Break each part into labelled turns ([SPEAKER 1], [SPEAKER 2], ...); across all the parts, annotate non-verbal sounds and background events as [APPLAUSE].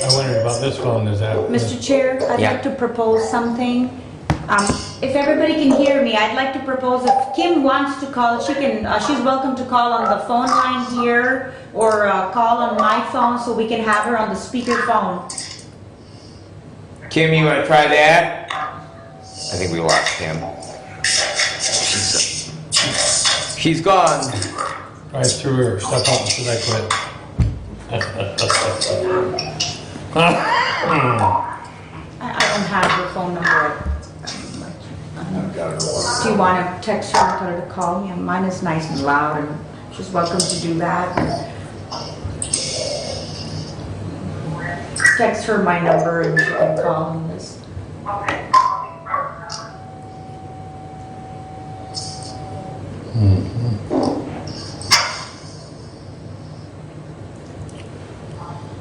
[SPEAKER 1] I wondered about this phone, is that?
[SPEAKER 2] Mr. Chair, I'd
[SPEAKER 3] Yeah.
[SPEAKER 2] like to propose something. Um, If everybody can hear me, I'd like to propose, if Kim wants to call, she can, uh, she's welcome to call on the phone line here or uh, call on my phone so we can have her on the speaker phone.
[SPEAKER 3] Kim, you want to try that? I think we lost Kim. She's- She's gone.
[SPEAKER 1] Right through her, step out, should I quit?
[SPEAKER 2] I I don't have her phone number. Do you want to text her and tell her to call me? Mine is nice and loud and she's welcome to do that. Text her my number and she can call on this.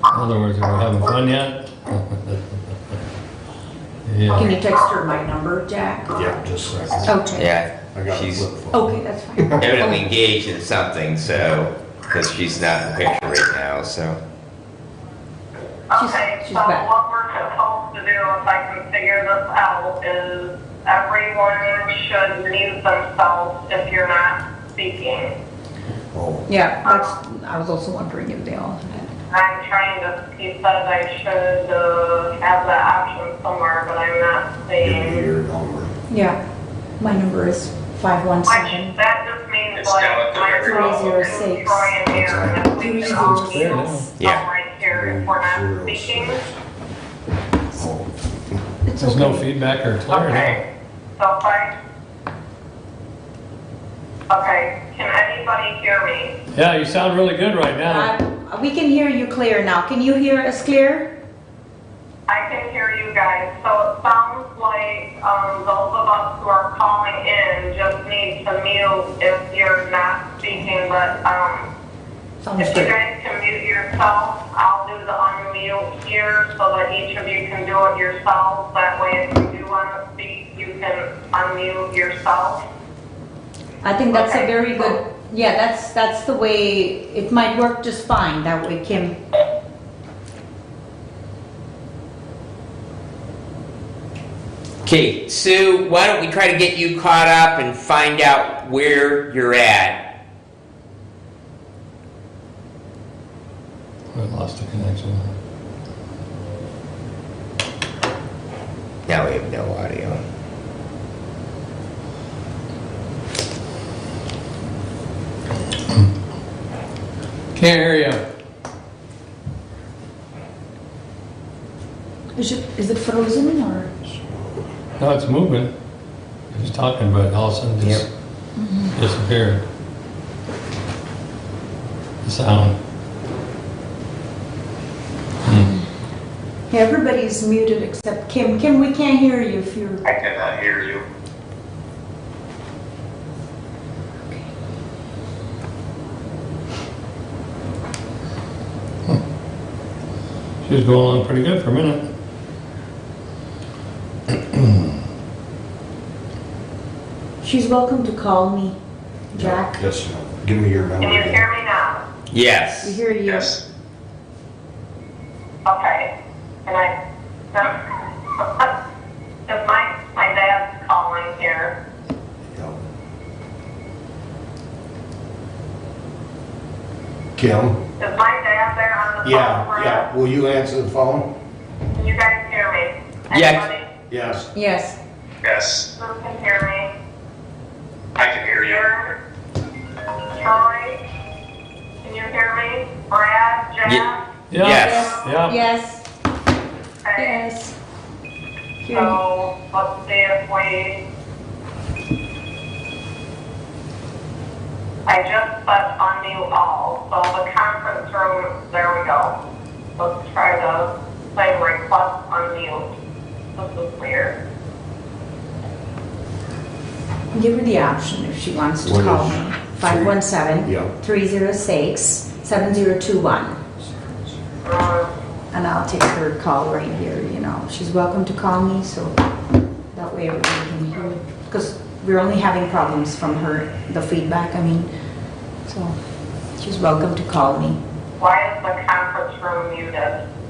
[SPEAKER 1] In other words, we're having fun yet? [LAUGHS] Yeah.
[SPEAKER 2] Can you text her my number, Jack?
[SPEAKER 4] Yeah, just a second.
[SPEAKER 2] Okay.
[SPEAKER 4] I
[SPEAKER 3] Yeah,
[SPEAKER 4] got a
[SPEAKER 3] she's
[SPEAKER 4] flip phone.
[SPEAKER 2] Okay, that's fine.
[SPEAKER 3] evidently engaged in something, so, because she's not in the picture right now, so.
[SPEAKER 5] Okay,
[SPEAKER 2] she's
[SPEAKER 5] so
[SPEAKER 2] back.
[SPEAKER 5] what we're supposed to do, if I can figure this out, is everyone should mute themselves if you're not speaking.
[SPEAKER 4] Oh,
[SPEAKER 2] [LAUGHS] Yeah, that's, I was also wondering if they all had.
[SPEAKER 5] I'm trying to, he said I should uh, have that option somewhere, but I'm not
[SPEAKER 4] give me
[SPEAKER 5] seeing.
[SPEAKER 4] your number.
[SPEAKER 2] Yeah, my number is
[SPEAKER 5] Which,
[SPEAKER 2] 517.
[SPEAKER 5] that just means
[SPEAKER 6] It's down
[SPEAKER 5] like
[SPEAKER 6] at the
[SPEAKER 5] my
[SPEAKER 6] very
[SPEAKER 5] phone
[SPEAKER 2] bottom.
[SPEAKER 5] is Troy and Aaron, if we can all
[SPEAKER 1] It's clear
[SPEAKER 5] mute
[SPEAKER 1] now.
[SPEAKER 3] Yeah.
[SPEAKER 5] right here if we're not
[SPEAKER 4] Zero
[SPEAKER 5] speaking.
[SPEAKER 4] six. Oh,
[SPEAKER 2] It's
[SPEAKER 1] There's no
[SPEAKER 2] okay.
[SPEAKER 1] feedback or clarity.
[SPEAKER 5] Okay, so if I, okay, can anybody hear me?
[SPEAKER 1] Yeah, you sound really good right now.
[SPEAKER 2] Uh, We can hear you clear now. Can you hear us clear?
[SPEAKER 5] I can hear you guys, so it sounds like, um, those of us who are calling in just need to mute if you're not speaking, but, um,
[SPEAKER 2] Sounds
[SPEAKER 5] if you
[SPEAKER 2] good.
[SPEAKER 5] guys can mute yourself, I'll do the unmute here so that each of you can do it yourself. That way, if you do want to speak, you can unmute yourself.
[SPEAKER 2] I think that's a
[SPEAKER 5] Okay.
[SPEAKER 2] very good, yeah, that's, that's the way, it might work just fine that way, Kim.
[SPEAKER 3] Okay, Sue, why don't we try to get you caught up and find out where you're at?
[SPEAKER 1] We lost the connection.
[SPEAKER 3] Now we have no audio.
[SPEAKER 1] Can't hear you.
[SPEAKER 2] Is it, is it frozen or?
[SPEAKER 1] No, it's moving. He's talking, but all of a sudden just disappeared. The sound. Hmm.
[SPEAKER 2] Yeah, Everybody's muted except Kim. Kim, we can't hear you if you're,
[SPEAKER 6] I cannot hear you.
[SPEAKER 1] She was going along pretty good for a minute.
[SPEAKER 2] she's welcome to call me, Jack.
[SPEAKER 4] Yes, ma'am. Give me your number.
[SPEAKER 5] Can you
[SPEAKER 4] again.
[SPEAKER 5] hear me now?
[SPEAKER 2] We
[SPEAKER 3] Yes.
[SPEAKER 2] hear you.
[SPEAKER 6] Yes.
[SPEAKER 5] Okay, and I, [LAUGHS] if my, my dad's calling here,
[SPEAKER 4] Yeah. Kim?
[SPEAKER 5] is my dad there on the phone?
[SPEAKER 4] Yeah, yeah. Will you answer the phone?
[SPEAKER 5] Can you guys hear me?
[SPEAKER 3] Yes.
[SPEAKER 5] Anybody
[SPEAKER 4] Yes.
[SPEAKER 2] Yes,
[SPEAKER 6] Yes.
[SPEAKER 5] who can hear me?
[SPEAKER 6] I can hear you.
[SPEAKER 5] Aaron? Troy? Can you hear me? Brad, Jack?
[SPEAKER 1] Yeah.
[SPEAKER 3] Yes.
[SPEAKER 1] Yeah.
[SPEAKER 2] yes,
[SPEAKER 5] Okay,
[SPEAKER 2] yes. Hear you.
[SPEAKER 5] so let's see if we. I just put unmute all, so the conference room, there we go. Let's try to say request unmute. This is weird.
[SPEAKER 2] Give her the option if she wants to
[SPEAKER 4] What
[SPEAKER 2] call
[SPEAKER 4] is-
[SPEAKER 2] me. 517
[SPEAKER 4] Yeah.
[SPEAKER 2] 306 7021.
[SPEAKER 5] Um,
[SPEAKER 2] And I'll take her call right here, you know. She's welcome to call me, so that way everybody can hear. Because we're only having problems from her, the feedback, I mean. So she's welcome to call me.
[SPEAKER 5] Why is the conference room muted?